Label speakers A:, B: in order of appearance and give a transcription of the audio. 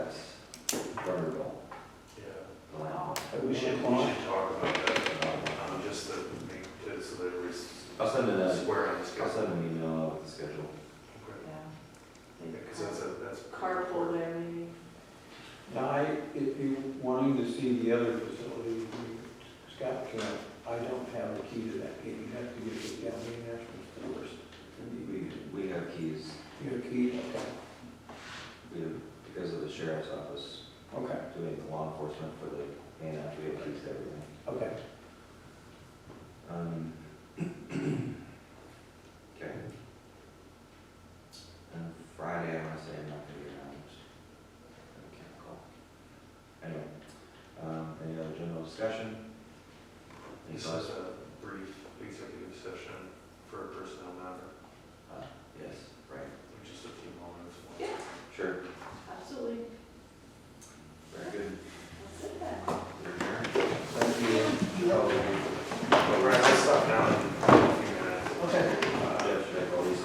A: um,
B: if you wanting to see the other facility, Scott can, I don't have a key to that gate, you have to get it down the national stores.
C: We, we have keys,
B: You have a key, okay,
C: we, have- because of the sheriff's office,
B: okay,
C: doing the law enforcement for the, and we have keys to everything.
B: okay.
C: Um, Okay. And Friday, I wanna say I'm not gonna be around. I can't call. Anyway, um, any other general discussion? Any
A: This
C: thoughts?
A: is a brief executive session for a personnel matter,
C: Uh, Yes, right,
A: just a few moments.
C: sure.
D: Absolutely.